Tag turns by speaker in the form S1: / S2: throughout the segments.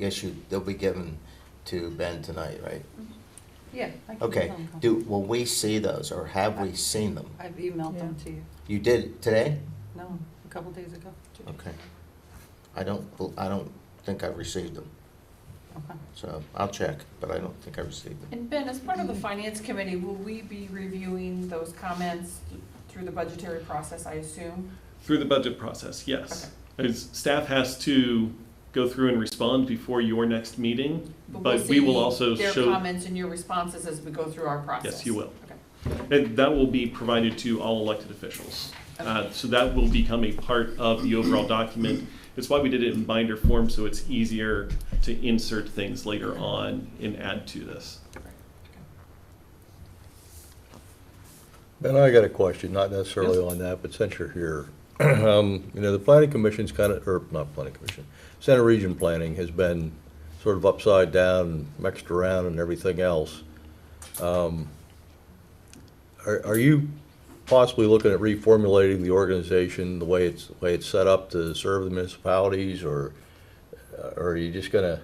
S1: issued, they'll be given to Ben tonight, right?
S2: Yeah. I can
S1: Okay,
S2: email them.
S1: do, will we see those, or have we seen them?
S2: I've emailed them
S3: Yeah.
S2: to you.
S1: You did today?
S2: No, a couple days ago.
S1: Okay. I don't, bel- I don't think I've received them,
S2: Okay.
S1: so I'll check, but I don't think I received them.
S4: And Ben, as part
S5: Mm-hmm.
S4: of the finance committee, will we be reviewing those comments through the budgetary process, I assume?
S5: Through the budget process, yes. As staff has to go through and respond before your next meeting, but we will
S4: see
S5: also
S4: Their
S5: show,
S4: comments and your responses as we go through our process?
S5: yes, you will.
S4: Okay.
S5: And that will be provided to all elected officials. Uh, So that will become a part of the overall document. It's why we did it in binder form, so it's easier to insert things later on and add to this.
S6: Ben, I got a question, not necessarily on that, but since you're here. Um, You know, the planning commission's kind of, or not planning commission, Center Region Planning has been sort of upside down, mixed around and everything else. Um, Are, are you possibly looking at reformulating the organization, the way it's, the way it's set up to serve the municipalities? Or uh, or are you just gonna,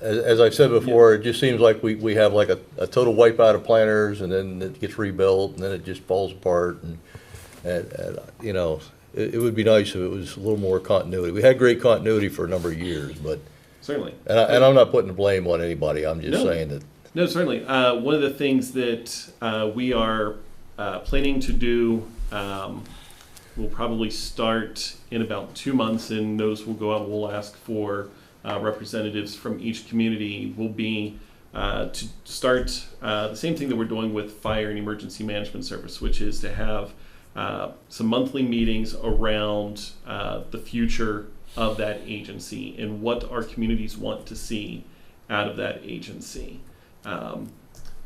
S6: as, as I've said before, it just seems like we, we have like a, a total wipeout of planners and then it gets rebuilt and then it just falls apart and, and, and, you know, it, it would be nice if it was a little more continuity. We had great continuity for a number of years, but,
S5: Certainly.
S6: and I, and I'm not putting the blame on anybody, I'm just
S5: No.
S6: saying that,
S5: No, certainly. Uh, one of the things that uh, we are uh, planning to do, um, we'll probably start in about two months, and those will go out. We'll ask for uh, representatives from each community. Will be uh, to start uh, the same thing that we're doing with fire and emergency management service, which is to have uh, some monthly meetings around uh, the future of that agency and what our communities want to see out of that agency. Um,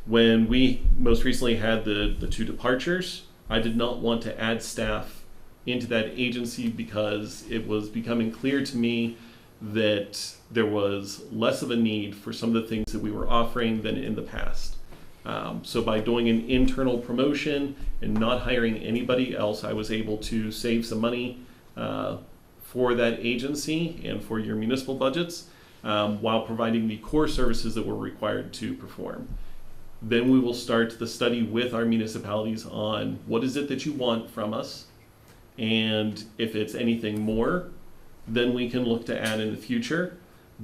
S5: when we most recently had the, the two departures, I did not want to add staff into that agency because it was becoming clear to me that there was less of a need for some of the things that we were offering than in the past. Um, so by doing an internal promotion and not hiring anybody else, I was able to save some money uh, for that agency and for your municipal budgets um, while providing the core services that we're required to perform. Then we will start the study with our municipalities on what is it that you want from us, and if it's anything more, then we can look to add in the future.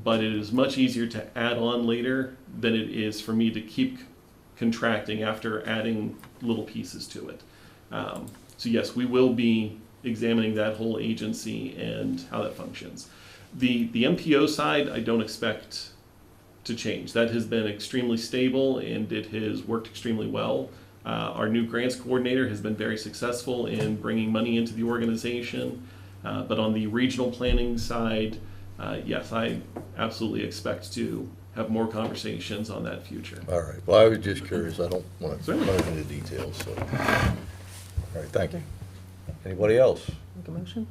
S5: But it is much easier to add on later than it is for me to keep contracting after adding little pieces to it. Um, so yes, we will be examining that whole agency and how that functions. The the MPO side, I don't expect to change. That has been extremely stable and it has worked extremely well. Uh, our new grants coordinator has been very successful in bringing money into the organization. Uh, but on the regional planning side, uh, yes, I absolutely expect to have more conversations on that future.
S6: all right. Well, I was just curious, I don't want to
S5: Certainly.
S6: go into details, so. All right, thank you. Anybody else?
S3: Make a motion?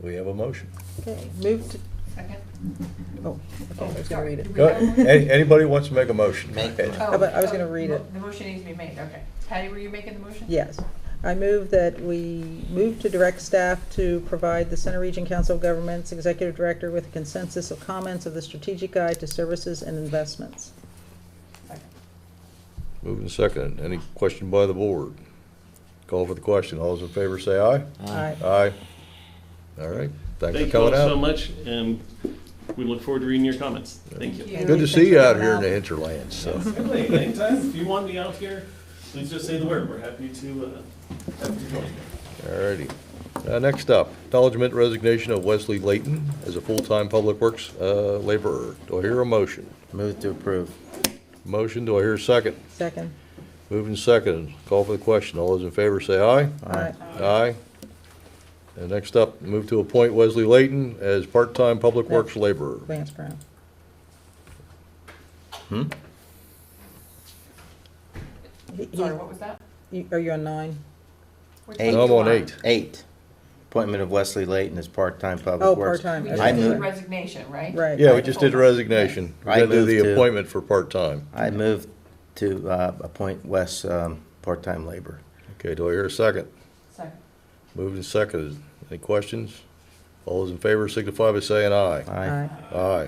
S6: We have a motion.
S3: Okay, move to,
S4: Second?
S3: oh, okay, I was gonna
S4: Sorry,
S3: read
S4: did
S3: it.
S4: we
S6: Go,
S4: have one?
S6: any- anybody wants to make a motion? go
S1: Make
S6: ahead.
S1: one.
S4: Oh,
S3: How about- I was gonna
S4: oh,
S3: read
S4: mo-
S3: it.
S4: The motion needs to be made, okay. Patty, were you making the motion?
S3: Yes. I move that we move to direct staff to provide the Center Region Council of Governments Executive Director with a consensus of comments of the Strategic Guide to Services and Investments.
S4: Second.
S6: Moving second. Any question by the board? Call for the question. All those in favor say aye.
S3: Aye.
S6: Aye. All right. Thanks for
S5: Thank you all
S6: coming
S5: so
S6: out.
S5: much, and we look forward to reading your comments. Thank you.
S6: Good to see you out here in the hinterlands, so.
S5: Certainly, anytime, if you want me out here, please just say the word, we're happy to, uh, happy to join you.
S6: All righty. Uh, next up, acknowledgement resignation of Wesley Layton as a full-time public works, uh, laborer. Do I hear a motion?
S1: Move to approve.
S6: Motion, do I hear a second?
S3: Second.
S6: Moving second. Call for the question. All those in favor say aye.
S3: Aye.
S6: Aye. And next up, move to appoint Wesley Layton as part-time public
S3: No.
S6: works laborer.
S3: Vance Brown. Hmm? He- he-
S4: Sorry, what was that?
S3: you- Are you on nine?
S4: Which
S1: Eight.
S4: one
S6: I'm
S4: do you
S6: on
S4: want?
S6: eight.
S1: Eight, appointment of Wesley Layton as part-time
S3: Oh,
S1: public works.
S3: part-time.
S4: We
S1: I
S4: just
S3: okay.
S4: did the
S1: move-
S4: resignation, right?
S3: Right.
S6: Yeah, we just did the resignation.
S1: I
S6: We're gonna do
S1: moved to-
S6: the appointment for part-time.
S1: I move to uh, appoint Wes um, part-time labor.
S6: Okay, do I hear a second?
S4: Second.
S6: Moved and seconded. Any questions? All those in favor signify by saying aye.
S1: Aye.
S3: Aye.
S6: Aye.